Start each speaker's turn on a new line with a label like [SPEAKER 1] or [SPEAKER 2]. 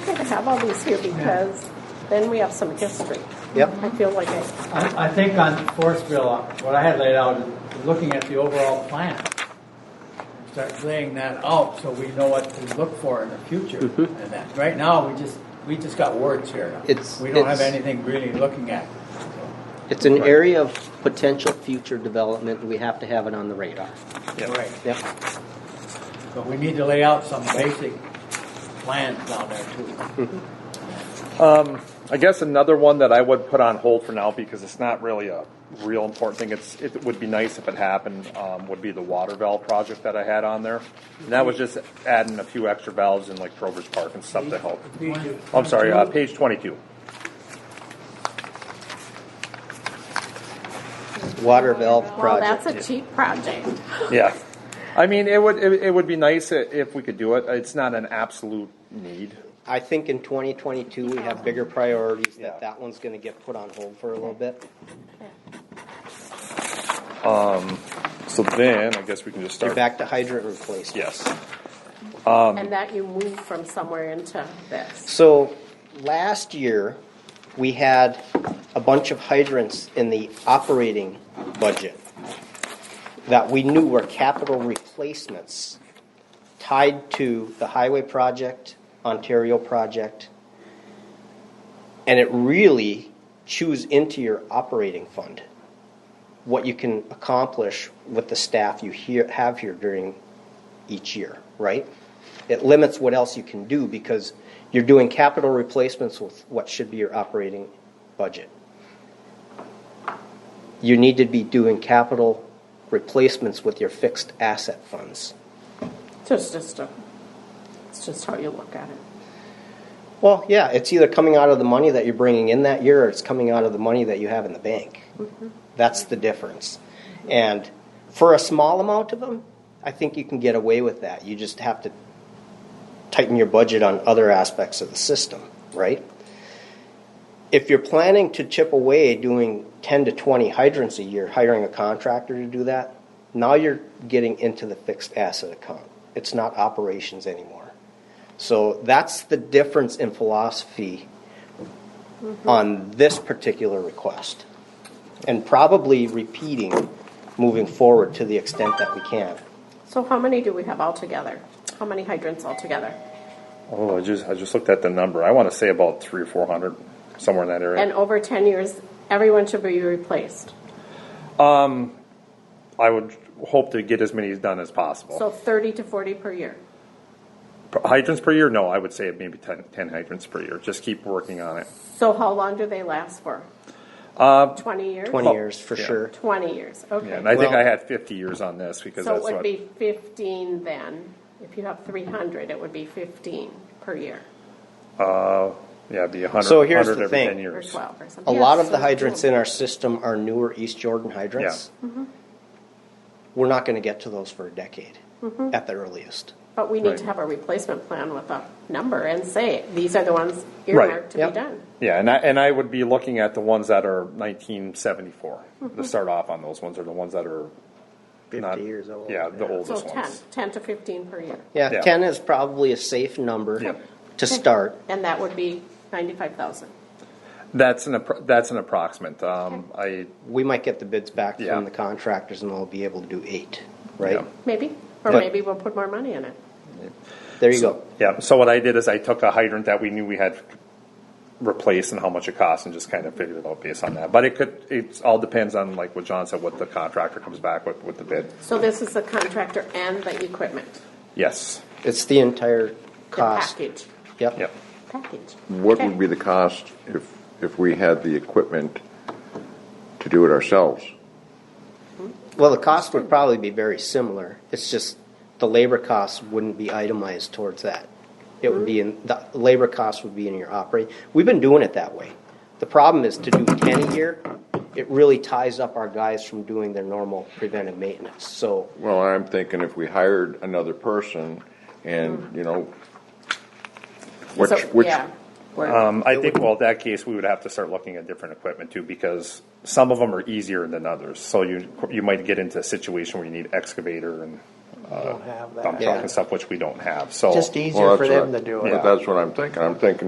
[SPEAKER 1] have all these here because then we have some history.
[SPEAKER 2] Yep.
[SPEAKER 1] I feel like I,
[SPEAKER 3] I, I think on Forestville, what I had laid out is looking at the overall plan. Start laying that out so we know what to look for in the future. And that, right now, we just, we just got words here.
[SPEAKER 2] Mm-hmm. It's-
[SPEAKER 3] We don't have
[SPEAKER 2] it's-
[SPEAKER 3] anything really looking at.
[SPEAKER 2] It's an area of potential future development, and we have to have it on the radar.
[SPEAKER 3] Right.
[SPEAKER 2] Yep.
[SPEAKER 3] But we need to lay out some basic plans down there too.
[SPEAKER 4] Um, I guess another one that I would put on hold for now because it's not really a real important thing. It's it would be nice if it happened. Um, would be the water valve project that I had on there. And that was just adding a few extra valves in like Grover's Park and stuff to help. I'm sorry, uh, page twenty-two.
[SPEAKER 2] Water valve
[SPEAKER 1] well, that's
[SPEAKER 2] project.
[SPEAKER 1] a cheap project.
[SPEAKER 4] Yeah, I mean it would it, it would be nice i- if we could do it. It's not an absolute need.
[SPEAKER 2] I think in 2022, we have bigger priorities,
[SPEAKER 4] Yeah.
[SPEAKER 2] that that one's gonna get put on hold for a little bit.
[SPEAKER 4] So then I guess we can just
[SPEAKER 2] You're
[SPEAKER 4] start.
[SPEAKER 2] back to hydrant replacement.
[SPEAKER 4] Yes.
[SPEAKER 1] And that you move from somewhere into this.
[SPEAKER 2] So last year, we had a bunch of hydrants in the operating budget that we knew were capital replacements tied to the highway project, Ontario project, and it really chews into your operating fund what you can accomplish with the staff you here, have here during each year, right? It limits what else you can do because you're doing capital replacements with what should be your operating budget. You need to be doing capital replacements with your fixed asset funds.
[SPEAKER 1] So It's just a, it's just how you look at it.
[SPEAKER 2] Well, yeah, it's either coming out of the money that you're bringing in that year or it's coming out of the money that you have in the bank. That's the difference. And for a small amount of them, I think you can get away with that. You just have to tighten your budget on other aspects of the system, right? If you're planning to chip away doing 10 to 20 hydrants a year, hiring a contractor to do that, now you're getting into the fixed asset account. It's not operations anymore. So that's the difference in philosophy on this particular request. And probably repeating moving forward to the extent that we can.
[SPEAKER 1] So how many do we have altogether? How many hydrants altogether?
[SPEAKER 4] Oh, I just I just looked at the number. I want to say about three or four hundred, somewhere in that area.
[SPEAKER 1] And over ten years, everyone should be replaced.
[SPEAKER 4] I would hope to get as many done as possible.
[SPEAKER 1] So thirty to forty per year.
[SPEAKER 4] hydrants per year? No, I would say maybe 10, 10 hydrants per year. Just keep working on it.
[SPEAKER 1] So how long do they last for? Twenty years?
[SPEAKER 2] 20 years for
[SPEAKER 4] Yeah.
[SPEAKER 2] sure.
[SPEAKER 1] Twenty years,
[SPEAKER 4] Yeah,
[SPEAKER 1] okay.
[SPEAKER 4] and I think
[SPEAKER 2] Well-
[SPEAKER 4] I had 50 years on this because
[SPEAKER 1] So it
[SPEAKER 4] that's
[SPEAKER 1] would
[SPEAKER 4] what.
[SPEAKER 1] be fifteen then, if you have three hundred, it would be fifteen per year,
[SPEAKER 4] yeah, it'd be 100,
[SPEAKER 2] So here's
[SPEAKER 4] 100
[SPEAKER 2] the
[SPEAKER 4] every
[SPEAKER 2] thing.
[SPEAKER 4] 10
[SPEAKER 1] or
[SPEAKER 4] years.
[SPEAKER 1] twelve or something.
[SPEAKER 2] A lot of
[SPEAKER 1] Yeah,
[SPEAKER 2] the
[SPEAKER 1] so-
[SPEAKER 2] hydrants in our system are newer East Jordan hydrants.
[SPEAKER 1] Mm-hmm.
[SPEAKER 2] We're not going to get to those for a decade
[SPEAKER 1] Mm-hmm.
[SPEAKER 2] at the earliest.
[SPEAKER 1] But we need
[SPEAKER 4] Right.
[SPEAKER 1] to have a replacement plan with a number and say, these are the ones
[SPEAKER 4] Right.
[SPEAKER 1] earmarked to be
[SPEAKER 2] Yep.
[SPEAKER 1] done.
[SPEAKER 4] Yeah, and I, and I would be looking at the ones that are 1974 to start off on. Those ones are the ones that are
[SPEAKER 2] 50
[SPEAKER 4] not,
[SPEAKER 2] years old.
[SPEAKER 4] Yeah, the
[SPEAKER 1] So
[SPEAKER 4] oldest
[SPEAKER 1] 10,
[SPEAKER 4] ones.
[SPEAKER 1] 10 to fifteen per year.
[SPEAKER 2] Yeah,
[SPEAKER 4] Yeah.
[SPEAKER 2] 10 is probably a safe number
[SPEAKER 4] Yeah.
[SPEAKER 2] to start.
[SPEAKER 1] And that would be ninety-five thousand.
[SPEAKER 4] That's an appro- that's an approximate. Um, I
[SPEAKER 2] We might get the bids back
[SPEAKER 4] Yeah.
[SPEAKER 2] from the contractors and we'll be able to do eight, right?
[SPEAKER 4] Yeah.
[SPEAKER 1] Maybe, or
[SPEAKER 4] But-
[SPEAKER 1] maybe we'll put more money in it.
[SPEAKER 2] There you go.
[SPEAKER 4] Yeah, so what I did is I took a hydrant that we knew we had replaced and how much it cost and just kind of figured it out based on that. But it could, it all depends on, like what John said, what the contractor comes back with, with the bid.
[SPEAKER 1] So this is the contractor and the equipment,
[SPEAKER 4] Yes,
[SPEAKER 2] It's the entire
[SPEAKER 1] the
[SPEAKER 2] cost.
[SPEAKER 1] package,
[SPEAKER 2] Yep.
[SPEAKER 4] yep.
[SPEAKER 1] package.
[SPEAKER 5] What
[SPEAKER 1] Okay.
[SPEAKER 5] would be the cost if, if we had the equipment to do it ourselves?
[SPEAKER 2] Well, the cost would probably be very similar. It's just the labor costs wouldn't be itemized towards that. It would be in, the labor costs would be in your operating. We've been doing it that way. The problem is to do ten a year, it really ties up our guys from doing their normal preventive maintenance. So
[SPEAKER 5] Well, I'm thinking if we hired another person and, you know, which,
[SPEAKER 1] Mm. So,
[SPEAKER 5] which,
[SPEAKER 1] yeah, we're-
[SPEAKER 4] Um, I think, well, in that case, we would have to start looking at different equipment too, because some of them are easier than others. So you, you might get into a situation where you need excavator and
[SPEAKER 6] don't have
[SPEAKER 4] dump
[SPEAKER 6] that.
[SPEAKER 4] truck
[SPEAKER 2] Yeah.
[SPEAKER 4] and stuff, which we don't have, so.
[SPEAKER 6] Just
[SPEAKER 5] well,
[SPEAKER 6] easier for
[SPEAKER 5] that's
[SPEAKER 6] them
[SPEAKER 5] what I-
[SPEAKER 6] to do it.
[SPEAKER 5] But that's what I'm thinking. I'm thinking